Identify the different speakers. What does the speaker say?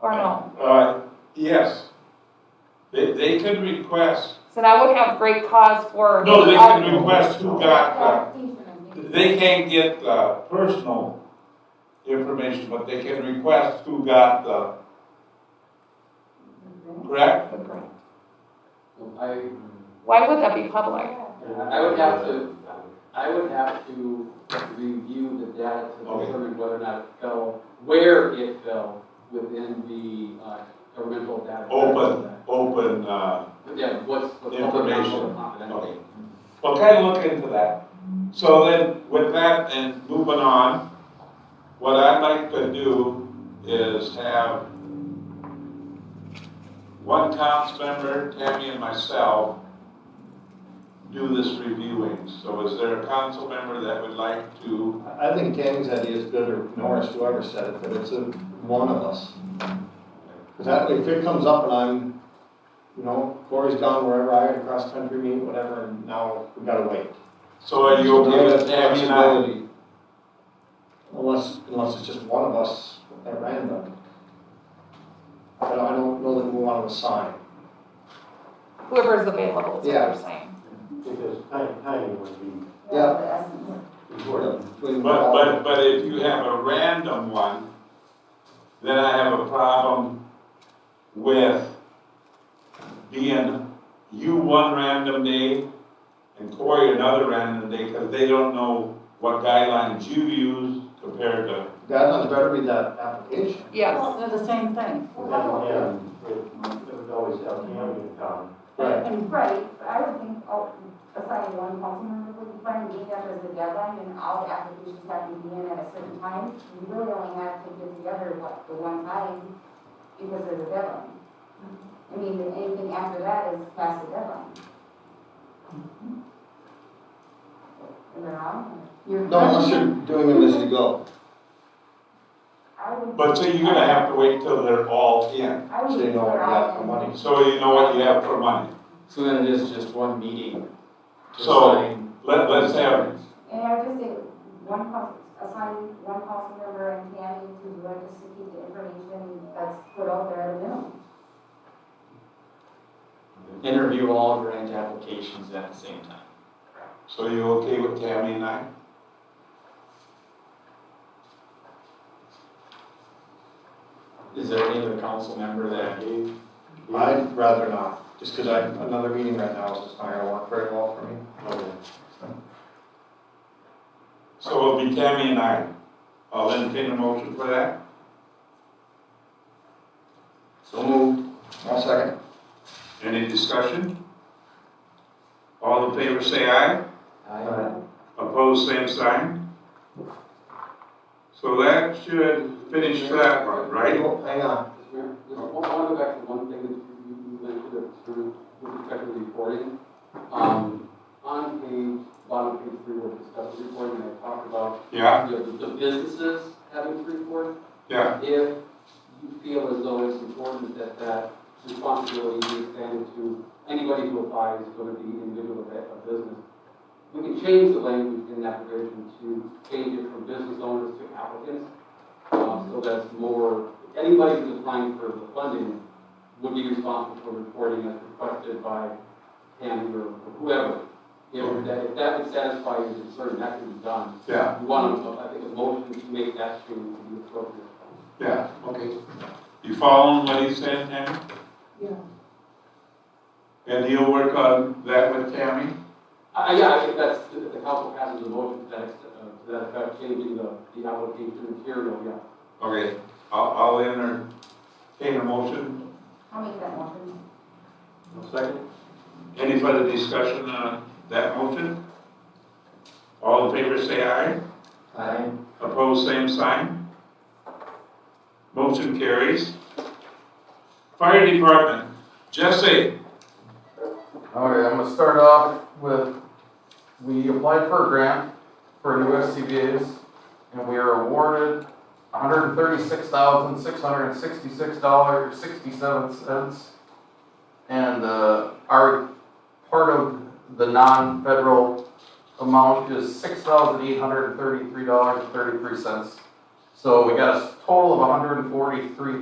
Speaker 1: or no?
Speaker 2: Uh, yes. They, they could request,
Speaker 1: So that would have great cause for.
Speaker 2: no, they can request who got, uh, they can't get, uh, personal information, but they can request who got the, correct?
Speaker 3: I,
Speaker 1: Why would that be public?
Speaker 3: I would have to, I would have to review the data to
Speaker 2: Okay.
Speaker 3: determine whether or not it fell, where it fell within the uh, governmental data.
Speaker 2: Open, open, uh,
Speaker 3: Yeah, what's, what's public,
Speaker 2: Information.
Speaker 3: non-public, confidential.
Speaker 2: Okay. Well, kind of look into that. So then, with that and moving on, what I'd like to do is have one council member, Tammy and myself, do this reviewing. So is there a council member that would like to,
Speaker 4: I think Tammy's idea is good, or Norris, whoever said it, that it's a one of us. Because that, if it comes up and I'm, you know, Corey's gone wherever, I had a cross-country meet, whatever, and now we gotta wait.
Speaker 2: so are you okay
Speaker 4: Give
Speaker 2: with
Speaker 4: us
Speaker 2: Tammy and I?
Speaker 4: flexibility. Unless, unless it's just one of us at random. But I don't know that we want to assign.
Speaker 1: Whoever's available is what
Speaker 4: Yeah.
Speaker 1: you're saying.
Speaker 5: Because time, timing would be
Speaker 4: Yeah.
Speaker 5: important.
Speaker 4: Between
Speaker 2: But,
Speaker 4: all-
Speaker 2: but, but if you have a random one, then I have a problem with being you one random day and Corey another random day, because they don't know what guidelines you use compared to,
Speaker 4: Guidelines better be that application.
Speaker 1: Yes,
Speaker 6: Well, they're the same thing.
Speaker 5: And it would always have Tammy in town.
Speaker 4: Right.
Speaker 7: And right, but I would think, oh, assigning one council member would be fine, being that there's a deadline and all the applications have to be in at a certain time. We really only have to get together, what, the one time because of the deadline. I mean, anything after that is past the deadline. Am I wrong?
Speaker 4: No, unless you're doing them as you go.
Speaker 7: I would.
Speaker 2: but so you're gonna have to wait till they're all in.
Speaker 7: I would.
Speaker 4: So you know what you got for money.
Speaker 2: So you know what you have for money.
Speaker 3: So then it is just one meeting to
Speaker 2: So-
Speaker 3: assign.
Speaker 2: Let, let's have,
Speaker 7: And I would just say, one council, assign one council member and Tammy to do it, just to keep the information that's put out there at a minimum.
Speaker 3: Interview all grant applications at the same time.
Speaker 2: so you okay with Tammy and I?
Speaker 3: Is there any other council member that,
Speaker 4: I'd rather not, just because I, another meeting right now is just not gonna work very well for me.
Speaker 2: So it'll be Tammy and I. I'll entertain a motion for that.
Speaker 4: So moved. I'll second.
Speaker 2: Any discussion? All in favor say aye. Opposed, same sign. So that should finish that one, right?
Speaker 4: Oh, Hang on.
Speaker 3: Mr. Mayor, just one- I want to go back to one thing that you you mentioned that sort of with respect to reporting. Um, On page, bottom of page three, we're discussing reporting, and I talked about
Speaker 2: Yeah,
Speaker 3: you know, the the businesses having to report.
Speaker 2: yeah.
Speaker 3: If you feel as though it's important that that responsibility be extended to anybody who applies, whether it be individual or a business, we can change the language in that provision to change it from business owners to applicants. uh, So that's more, anybody who's applying for the funding would be responsible for reporting as requested by him or whoever. If that, if that would satisfy your concern, that can be done.
Speaker 2: Yeah,
Speaker 3: You want, a- I think, a motion to make that change to be appropriate.
Speaker 2: yeah, okay. You following what he's saying, Tammy?
Speaker 6: Yeah.
Speaker 2: And you'll work on that with Tammy?
Speaker 3: Uh, yeah, I think that's, the the council passes a motion to that, ex- uh, to that effect, changing the, the application material, yeah.
Speaker 2: Okay, I'll, I'll entertain a motion.
Speaker 7: I'll make that motion.
Speaker 5: Second?
Speaker 2: Any further discussion on that motion? All in favor say aye.
Speaker 4: Aye.
Speaker 2: Opposed, same sign. Motion carries. Fire Department, Jesse,
Speaker 8: All right, I'm gonna start off with, we applied for a grant for new SCBA's, and we are awarded hundred and thirty-six thousand, six hundred and sixty-six dollars, sixty-seven cents. And, uh, our, part of the non-federal amount is six thousand, eight hundred and thirty-three dollars and thirty-three cents. So we got a total of $143,300.